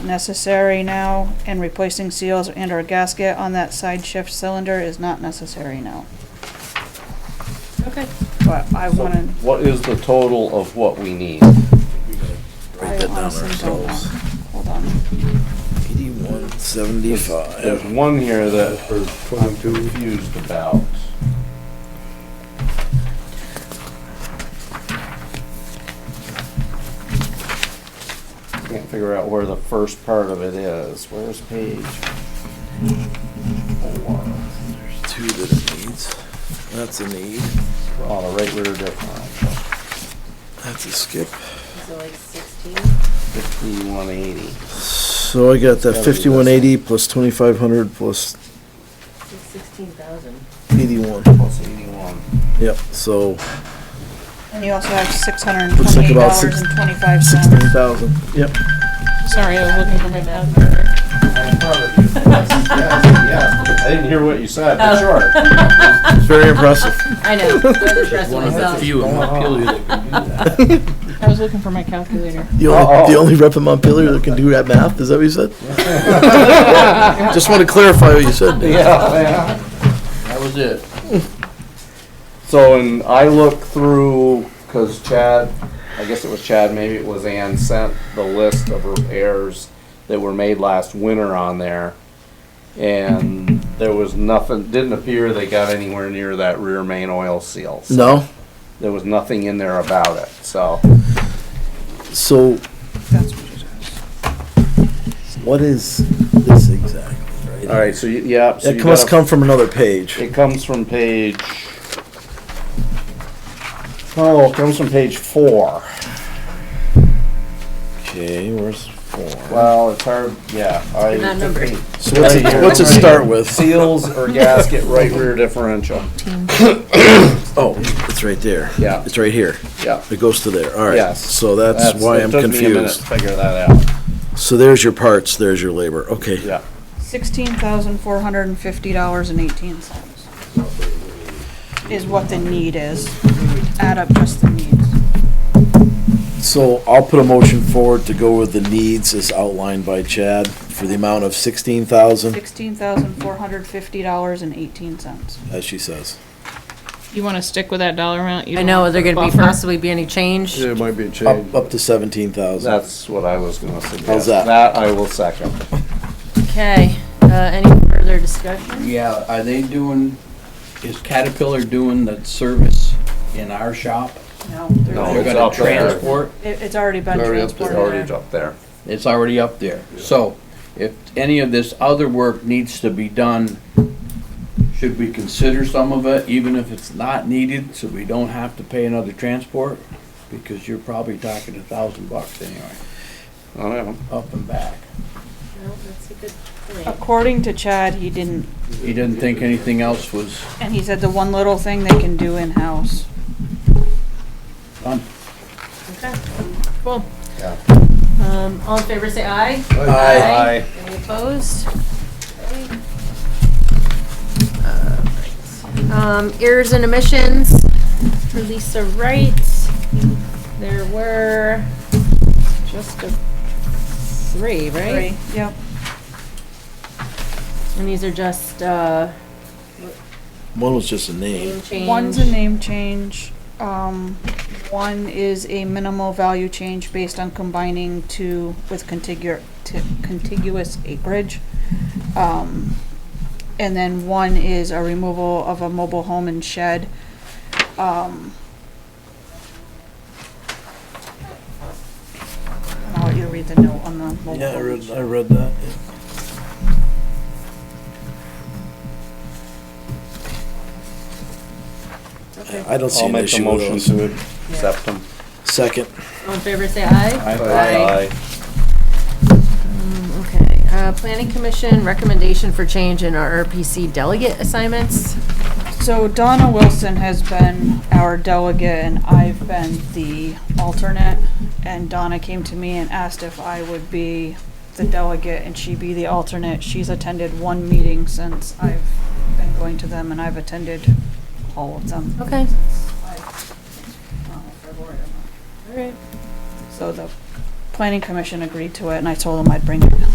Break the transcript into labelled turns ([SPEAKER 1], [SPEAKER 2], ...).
[SPEAKER 1] necessary now, and replacing seals and or gasket on that side shift cylinder is not necessary now.
[SPEAKER 2] Okay.
[SPEAKER 1] But I
[SPEAKER 3] So
[SPEAKER 1] wanted,
[SPEAKER 3] What is the total of what we need?
[SPEAKER 1] I
[SPEAKER 4] that down
[SPEAKER 1] honestly don't know.
[SPEAKER 4] ourselves.
[SPEAKER 1] Hold on.
[SPEAKER 4] Eighty-one
[SPEAKER 3] There's
[SPEAKER 4] seventy-five.
[SPEAKER 3] one here that
[SPEAKER 5] for twenty-two.
[SPEAKER 3] confused about. Can't figure out where the first part of it is. Where's page? four?
[SPEAKER 4] Two that it needs. That's a need.
[SPEAKER 3] On the right rear diff line,
[SPEAKER 4] That's a skip.
[SPEAKER 2] So like sixteen?
[SPEAKER 3] fifty-one eighty.
[SPEAKER 4] So I got that
[SPEAKER 3] Gotta be this one.
[SPEAKER 4] fifty-one eighty plus twenty-five hundred plus
[SPEAKER 2] Sixteen thousand.
[SPEAKER 4] eighty-one.
[SPEAKER 3] Plus eighty-one.
[SPEAKER 4] Yep, so
[SPEAKER 1] And you also have six hundred and
[SPEAKER 4] Looks like
[SPEAKER 1] twenty-eight
[SPEAKER 4] about
[SPEAKER 1] dollars
[SPEAKER 4] six-
[SPEAKER 1] and twenty-five
[SPEAKER 4] sixteen
[SPEAKER 1] cents.
[SPEAKER 4] thousand. Yep.
[SPEAKER 2] Sorry, I was looking for my calculator.
[SPEAKER 3] I'm proud of you. Yes, yes, yes. I didn't hear what you said, but sure.
[SPEAKER 4] It's very impressive.
[SPEAKER 2] I know, I was impressed with myself.
[SPEAKER 6] few in Montpelier that can do that.
[SPEAKER 2] I was looking for my calculator.
[SPEAKER 4] The only,
[SPEAKER 3] Uh-oh.
[SPEAKER 4] the only rep in Montpelier that can do that math, is that what you said? Just want to clarify what you said, Dave.
[SPEAKER 3] Yeah.
[SPEAKER 6] That was it.
[SPEAKER 3] So, and I looked through, cause Chad, I guess it was Chad, maybe it was Ann, sent the list of repairs that were made last winter on there. And there was nothing, didn't appear they got anywhere near that rear main oil seal. So
[SPEAKER 4] No,
[SPEAKER 3] There was nothing in there about it, so.
[SPEAKER 4] so
[SPEAKER 1] That's what you said.
[SPEAKER 4] what is this exact?
[SPEAKER 3] Alright, so you, yeah. so
[SPEAKER 4] It
[SPEAKER 3] you
[SPEAKER 4] must
[SPEAKER 3] gotta-
[SPEAKER 4] come from another page.
[SPEAKER 3] It comes from page. Oh, it comes from page four.
[SPEAKER 4] Okay, where's four?
[SPEAKER 3] Well, it's hard, yeah, I.
[SPEAKER 2] Not numbered.
[SPEAKER 4] So what's it, what's it start with?
[SPEAKER 3] Seals or gasket right rear differential,
[SPEAKER 4] Oh, it's right there.
[SPEAKER 3] Yeah.
[SPEAKER 4] It's right here.
[SPEAKER 3] yeah.
[SPEAKER 4] It goes to there. All right.
[SPEAKER 3] Yes.
[SPEAKER 4] So that's why
[SPEAKER 3] it
[SPEAKER 4] I'm
[SPEAKER 3] took me a minute
[SPEAKER 4] confused.
[SPEAKER 3] to Figure that out,
[SPEAKER 4] So there's your parts, there's your labor. Okay.
[SPEAKER 3] yeah.
[SPEAKER 1] Sixteen thousand four hundred and fifty dollars and eighteen cents is what the need is. Add up just the needs.
[SPEAKER 4] So I'll put a motion forward to go with the needs as outlined by Chad for the amount of sixteen thousand,
[SPEAKER 1] Sixteen thousand four hundred fifty dollars and eighteen cents.
[SPEAKER 4] as she says.
[SPEAKER 7] You wanna stick with that dollar amount? You
[SPEAKER 2] I
[SPEAKER 7] don't
[SPEAKER 2] know,
[SPEAKER 7] want
[SPEAKER 2] is there
[SPEAKER 7] to
[SPEAKER 2] gonna be
[SPEAKER 7] buffer?
[SPEAKER 2] possibly be any change?
[SPEAKER 5] There might be a change.
[SPEAKER 4] Up, up to seventeen thousand.
[SPEAKER 3] That's what I was gonna suggest.
[SPEAKER 4] How's that?
[SPEAKER 3] That I will second.
[SPEAKER 2] Okay, uh, any further discussion?
[SPEAKER 6] Yeah, are they doing, is Caterpillar doing the service in our shop?
[SPEAKER 1] No,
[SPEAKER 3] No,
[SPEAKER 6] They're
[SPEAKER 1] there's-
[SPEAKER 3] Oh, it's
[SPEAKER 6] gonna
[SPEAKER 3] up there.
[SPEAKER 6] transport,
[SPEAKER 1] it, it's already been
[SPEAKER 5] Already up there.
[SPEAKER 3] It's
[SPEAKER 1] transported
[SPEAKER 3] already
[SPEAKER 1] there.
[SPEAKER 3] up there.
[SPEAKER 6] it's already up there. So if any of this other work needs to be done, should we consider some of it, even if it's not needed, so we don't have to pay another transport? Because you're probably talking a thousand bucks anyway,
[SPEAKER 3] I don't know.
[SPEAKER 6] up and back.
[SPEAKER 2] No, that's a good point.
[SPEAKER 1] According to Chad, he didn't,
[SPEAKER 6] He didn't think anything else was
[SPEAKER 1] and he said the one little thing they can do in-house.
[SPEAKER 6] done.
[SPEAKER 2] Okay, cool.
[SPEAKER 3] Yeah.
[SPEAKER 2] Um, all in favor, say aye.
[SPEAKER 3] Aye.
[SPEAKER 2] Any opposed? Alright. Um, errors and omissions for Lisa Wright. There were just a three, right?
[SPEAKER 1] Three, Yep,
[SPEAKER 2] And these are just, uh,
[SPEAKER 4] One was just a name.
[SPEAKER 2] name change.
[SPEAKER 1] one's a name change, um, one is a minimal value change based on combining two with contiguous, contiguous acreage. Um, and then one is a removal of a mobile home and shed. Um. I'll let you read the note on the mobile
[SPEAKER 4] Yeah, I
[SPEAKER 1] home and
[SPEAKER 4] read,
[SPEAKER 1] shed.
[SPEAKER 4] I read that.
[SPEAKER 2] Okay.
[SPEAKER 4] I don't see
[SPEAKER 3] I'll
[SPEAKER 4] an
[SPEAKER 3] make a
[SPEAKER 4] issue with
[SPEAKER 3] motion
[SPEAKER 4] those.
[SPEAKER 3] to accept them.
[SPEAKER 4] Second.
[SPEAKER 2] All in favor, say aye.
[SPEAKER 3] Aye.
[SPEAKER 2] Um, Okay, uh, planning commission recommendation for change in our RPC delegate assignments.
[SPEAKER 1] So Donna Wilson has been our delegate and I've been the alternate. And Donna came to me and asked if I would be the delegate and she be the alternate. She's attended one meeting since I've been going to them and I've attended all of them.
[SPEAKER 2] Okay.
[SPEAKER 1] I- I don't know if I've already-
[SPEAKER 2] All right.
[SPEAKER 1] So the planning commission agreed to it, and I told them I'd bring it